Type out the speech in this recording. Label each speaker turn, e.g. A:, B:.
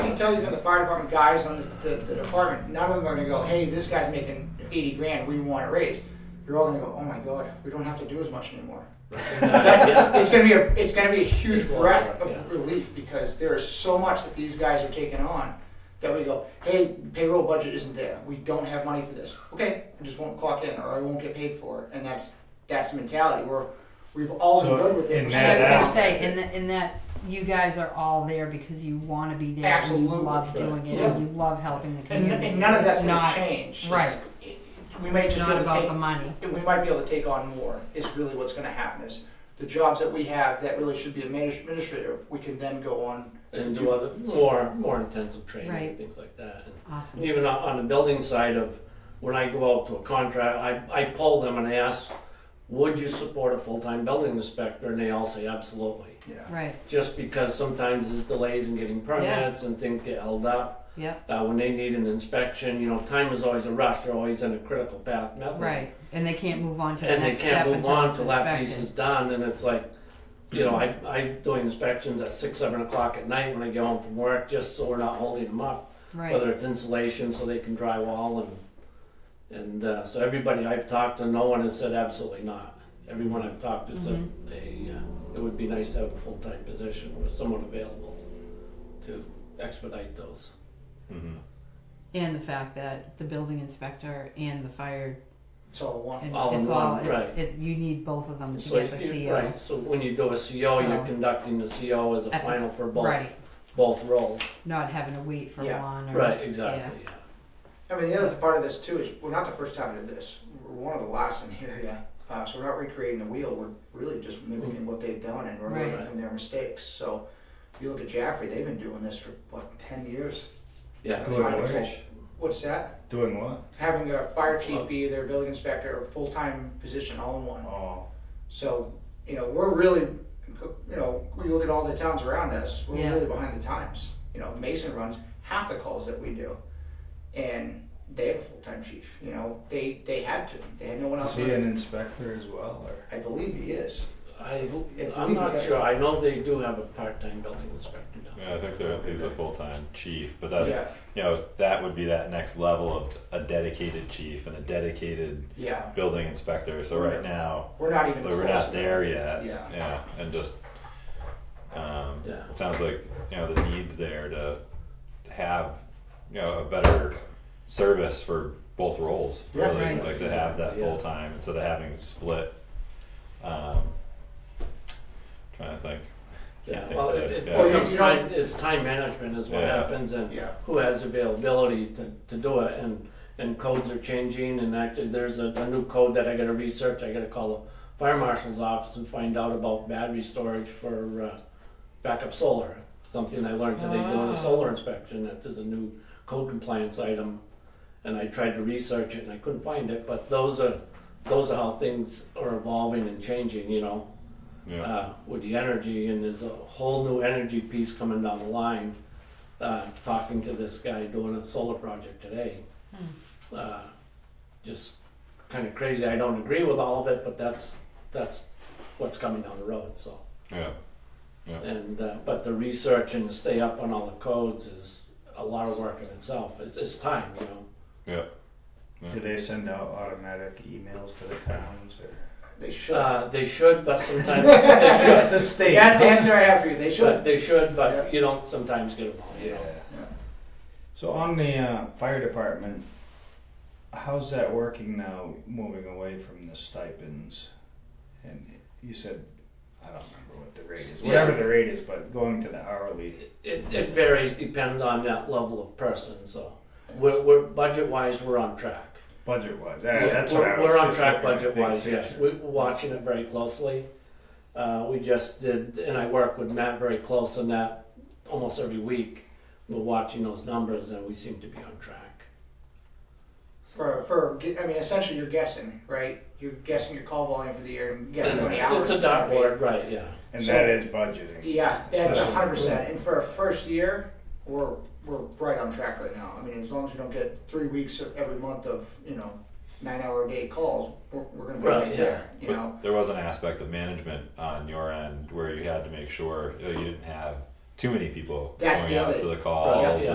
A: tell you from the fire department guys on the, the, the department, none of them are gonna go, hey, this guy's making eighty grand, we want a raise. You're all gonna go, oh my god, we don't have to do as much anymore. That's it. It's gonna be a, it's gonna be a huge
B: It's a lot,
A: breath
B: yeah.
A: of relief because there is so much that these guys are taking on that we go, hey, payroll budget isn't there. We don't have money for this. Okay, I just won't clock in or I won't get paid for it. And that's that's the mentality. We're we've all
C: So
A: been good with it
C: in
A: for
C: that
A: so
D: I was
A: long.
D: gonna say, in that, in that, you guys are all there because you want to be there. and
A: Absolutely.
D: You love doing it. and You love helping the
A: and,
D: community.
A: and none of that's
D: It's
A: gonna
D: not-
A: change. It's-
D: right.
A: it- we might
D: It's
A: just be
D: not
A: able
D: about
A: to
D: the
A: take,
D: money.
A: we might be able to take on more is really what's gonna happen is the jobs that we have that really should be adminis- administrative, we can then go on
B: and do other more more intensive training
D: Right.
B: and things like that. And
D: Awesome.
B: even on- on the building side of when I go out to a contract, I, I poll them and I ask, would you support a full time building inspector? And they all say absolutely.
A: yeah.
D: Right.
B: Just because sometimes there's delays in getting permits and things get held up.
D: Yep.
B: Uh, when they need an inspection, you know, time is always a rush. They're always in a critical path method.
D: Right. And they can't move on to the
B: and they
D: next step
B: can't move
D: until
B: on
D: it's
B: till that piece is
D: inspected.
B: done, and it's like, you know, I, I'm doing inspections at six, seven o'clock at night when I get home from work, just so we're not holding them up.
D: Right.
B: Whether it's insulation, so they can drywall and, and, uh, so everybody I've talked to, no one has said absolutely not. Everyone I've talked to said,
D: Mm-hmm.
B: they, uh, it would be nice to have a full-time position with someone available to expedite those.
D: And the fact that the building inspector and the fire,
A: It's all one.
D: and
B: All in
D: it's all,
B: one,
D: it-
B: right.
D: it- you need both of them to
B: So
D: get
B: you-
D: the CO.
B: Right, so when you do a CO,
D: So-
B: you're conducting the CO as a
D: At the s-
B: final for both,
D: Right.
B: both roles.
D: Not having to wait for
A: Yeah.
D: one or.
B: Right, exactly, yeah.
A: I mean, the other part of this too is we're not the first time to do this. We're one of the last in here, yeah. Uh, so we're not recreating the wheel. We're really just mimicking what they've done and we're learning
D: Right.
A: from their mistakes. So if you look at Jaffrey, they've been doing this for what ten years.
B: Yeah.
C: Good
B: I
C: work.
B: think-
A: What's that?
C: Doing what?
A: Having a fire chief
B: Well-
A: be their building inspector, full time position, all in one.
C: Oh,
A: So you know, we're really, you know, we look at all the towns around us. We're
D: Yeah.
A: really behind the times. You know, Mason runs half the calls that we do, and they have a full time chief. You know, they they had to. They had no one
C: is
A: else.
C: he an inspector as well, or?
A: I believe he is.
B: I,
A: If
B: I'm
A: we
B: not
A: could-
B: sure, I know they do have a part-time building inspector now.
E: Yeah, I think that he's a full-time chief, but that
A: Yeah.
E: you know that would be that next level of a dedicated chief and a dedicated
A: Yeah,
E: building inspector. So right now
A: we're not even.
E: but we're
A: close
E: not
A: to
E: there yet.
A: Yeah.
E: and just um,
B: Yeah.
E: it sounds like you know the needs there to, to have you know a better service for both roles.
A: Yeah,
E: really,
D: right.
E: like to have that
B: Yeah.
E: full time instead of having it split. Um, trying to think.
B: Yeah,
E: think
B: well,
E: so,
B: it, it
E: yeah.
B: becomes
A: You know-
B: time, it's time management is what
E: Yeah.
B: happens and
A: Yeah.
B: who has availability to, to do it and, and codes are changing and actually there's a, a new code that I gotta research, I gotta call the fire marshal's office and find out about battery storage for, uh, backup solar. Something I learned today doing
D: Oh.
B: a solar inspection, that there's a new code compliance item and I tried to research it and I couldn't find it, but those are, those are how things are evolving and changing, you know?
E: Yeah.
B: uh, with the energy, and there's a whole new energy piece coming down the line. Uh, talking to this guy doing a solar project today, uh, just kind of crazy. I don't agree with all of it, but that's that's what's coming down the road. So,
E: yeah.
B: and uh, but the research and to stay up on all the codes is a lot of work in itself. It's, it's time, you know.
E: Yeah.
C: Do they send out automatic emails to the towns or?
A: They should.
B: Uh, they should, but sometimes they should.
C: the state.
A: That's the answer I have for you. They
B: But
A: should.
B: they should, but
A: Yeah.
B: you don't sometimes get them all. You
C: Yeah.
B: know.
C: So on the uh, fire department, how's that working now, moving away from the stipends? And you said, I don't remember what the rate is, whatever the rate is, but going to the hourly.
B: It, it varies depending on that level of person, so we're, we're, budget-wise, we're on track.
C: Budget wise,
B: Yeah,
C: Uh, that's
B: we're,
C: what I was
B: We're on
C: just
B: track
C: looking at, big
B: budget-wise, yes,
C: picture.
B: we're watching it very closely. Uh, we just did, and I work with Matt very close on that, almost every week, we're watching those numbers and we seem to be on track.
A: For, for I mean, essentially, you're guessing, right? You're guessing your call volume for the year and guessing how many hours.
B: It's a
A: gonna be.
B: dartboard, right, yeah,
C: And
A: So-
C: that is budgeting.
A: Yeah, that's
C: Especially-
A: hundred percent. And for a first year, we're we're right on track right now. I mean, as long as we don't get three weeks of every month of you know nine hour a day calls, we're, we're gonna be right,
B: Right, yeah.
A: there. You
E: But
A: know,
E: there was an aspect of management on your end where you had to make sure you, know, you didn't have too many people
A: That's
E: going
A: the
E: out
A: other-
E: to the calls
B: yeah.